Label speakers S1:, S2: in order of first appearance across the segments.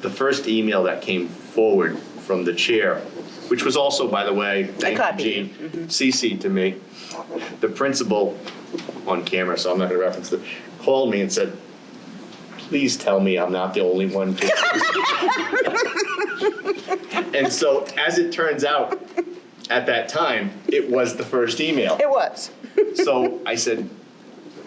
S1: the first email that came forward from the chair, which was also, by the way, thank
S2: copied
S1: you,
S2: you.
S1: Gene, CC'd to me, the principal, on camera, so I'm not gonna reference it, called me and said, please tell me I'm not the only one. to-" And so, as it turns out, at that time, it was the first email.
S2: It was.
S1: So I said,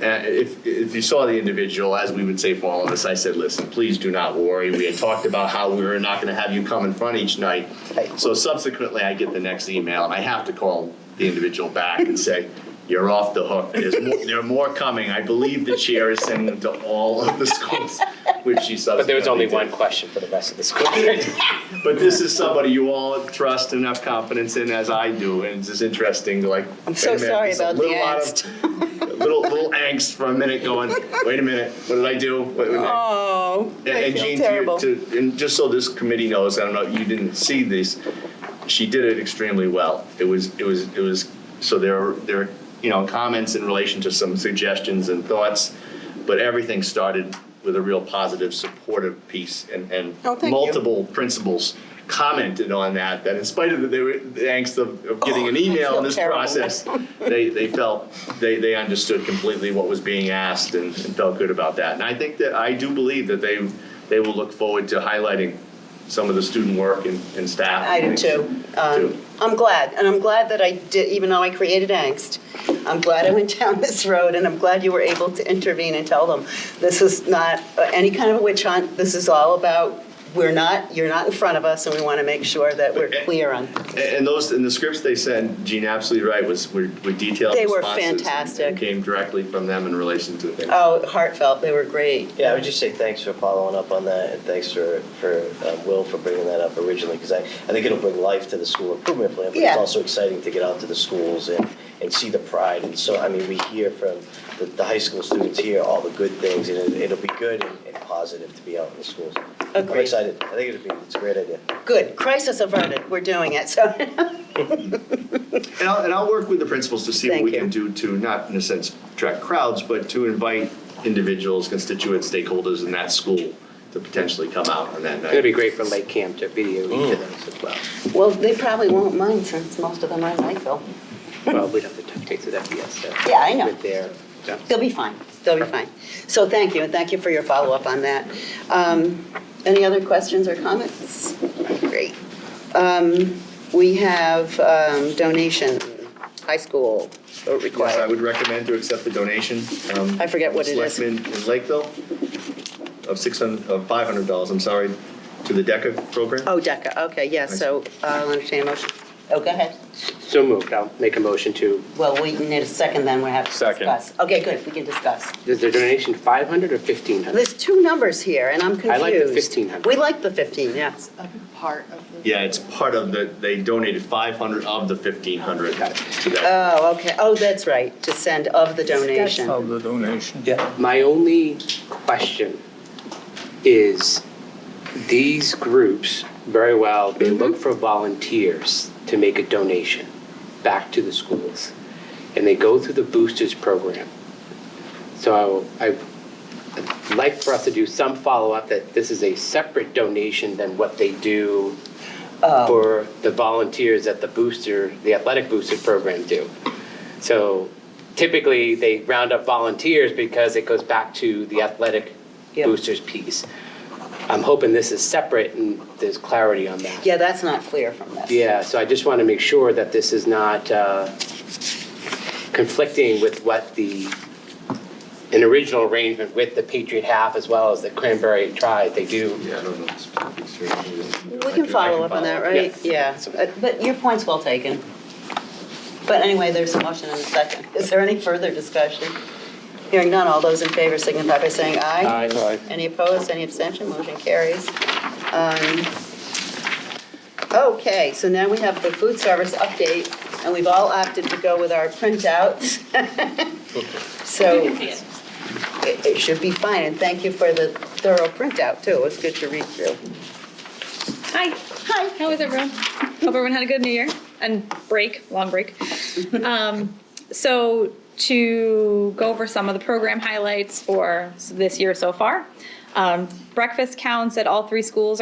S1: uh, if, if you saw the individual, as we would say for all of us, I said, listen, please do not worry. We had talked about how we were not gonna have you come in front each night. So subsequently, I get the next email, and I have to call the individual back and say, you're off the hook. There's more, there are more coming. I believe the chair is sending them to all of the schools, which she subsequently
S3: But there was only
S1: did.
S3: one question for the rest of the school.
S1: But this is somebody you all trust and have confidence in, as I do, and it's just interesting to like.
S2: I'm so
S1: wait a minute,
S2: sorry
S1: there's a
S2: about the
S1: little lot of- a Little, little angst for a minute going, wait a minute, what did I do? What- what-
S2: Oh, I
S1: And
S2: feel
S1: Jean, to your-
S2: terrible.
S1: to, and just so this committee knows, I don't know, you didn't see this, she did it extremely well. It was, it was, it was, so there are, there are, you know, comments in relation to some suggestions and thoughts, but everything started with a real positive, supportive piece and, and
S2: Oh, thank you.
S1: multiple principals commented on that, that in spite of the, they were, the angst of, of getting an email
S2: Oh, feel
S1: in this
S2: terrible.
S1: process, they, they felt, they, they understood completely what was being asked and, and felt good about that. And I think that, I do believe that they, they will look forward to highlighting some of the student work and, and staff.
S2: I do too. Um, I'm glad, and I'm glad that I did, even though I created angst, I'm glad I went down this road, and I'm glad you were able to intervene and tell them, this is not uh, any kind of a witch hunt, this is all about, we're not, you're not in front of us, and we want to make sure that we're clear on.
S1: And- And those, and the scripts they sent, Gene, absolutely right, was, were were detailed responses.
S2: They were
S1: and- and
S2: fantastic.
S1: Came directly from them in relation to things.
S2: Oh, heartfelt, they were great.
S4: Yeah, I would just say thanks for following up on that, and thanks for, for um, Will for bringing that up originally, because I, I think it'll bring life to the school improvement plan, but
S2: Yeah.
S4: it's also exciting to get out to the schools and, and see the pride, and so, I mean, we hear from the, the high school students here all the good things, and it- it'll be good and, and positive to be out in the schools. I'm
S2: Agreed.
S4: excited, I think it'll be, it's a great idea.
S2: Good, crisis averted, we're doing it, so.
S1: And I'll, and I'll work with the principals to see what
S2: Thank
S1: we
S2: you.
S1: can do to, not in a sense, attract crowds, but to invite individuals, constituents, stakeholders in that school to potentially come out on that night.
S3: It'd be great for Lake Camp to video each of
S2: Mm.
S3: those as well.
S2: Well, they probably won't mind since most of them are in Lakeville.
S3: Well, we'd have to take through that BSF.
S2: Yeah, I know.
S3: With their, yeah.
S2: They'll be fine, they'll be fine. So thank you, and thank you for your follow-up on that. Um, Any other questions or comments? Great. Um, We have um, donation, high school
S1: Yes, I
S2: required.
S1: would recommend to accept the donation. um,
S2: I forget what it is.
S1: Selectmen in Lakeville of six hundred, of five hundred dollars, I'm sorry, to the DECA program.
S2: Oh, DECA, okay, yes, so uh, I'll entertain a motion. Oh, go ahead.
S3: So moved. I'll make a motion to,
S2: Well, we need a second, then we have to
S1: Second.
S2: discuss. Okay, good, we can discuss.
S3: is the donation 500 or 1,500?
S2: There's two numbers here, and I'm confused.
S3: I like the 1500.
S2: We like the 15, yes.
S5: a part of the.
S1: Yeah, it's part of the, they donated five hundred of the fifteen hundred
S3: Got it.
S1: to that.
S2: Oh, okay, oh, that's right, to send of the donation.
S6: of the donation.
S3: My only question is, these groups, very well, they look for volunteers to make a donation back to the schools. And they go through the boosters program. So I, I'd like for us to do some follow-up that this is a separate donation than what they do for the volunteers at the booster, the athletic booster program do. So typically, they round up volunteers because it goes back to the athletic
S2: Yep.
S3: boosters piece. I'm hoping this is separate and there's clarity on that.
S2: Yeah, that's not clear from this.
S3: Yeah, so I just want to make sure that this is not uh, conflicting with what the, an original arrangement with the Patriot half as well as the Cranberry Tribe, they do.
S1: Yeah, I don't know the specifics here.
S2: We can follow up on that, right? Yeah, Uh, but your point's well taken. But anyway, there's a motion and a second. Is there any further discussion? Hearing none, all those in favor signify by saying aye.
S3: Aye.
S2: Any opposed, any abstention, motion carries. Um, Okay, so now we have the food service update, and we've all opted to go with our printouts. So. It it should be fine, and thank you for the thorough printout, too. It was good to read through.
S7: Hi. Hi. How is everyone? Hope everyone had a good New Year and break, long break. Um, so to go over some of the program highlights for this year so far, um, breakfast counts at all three schools are.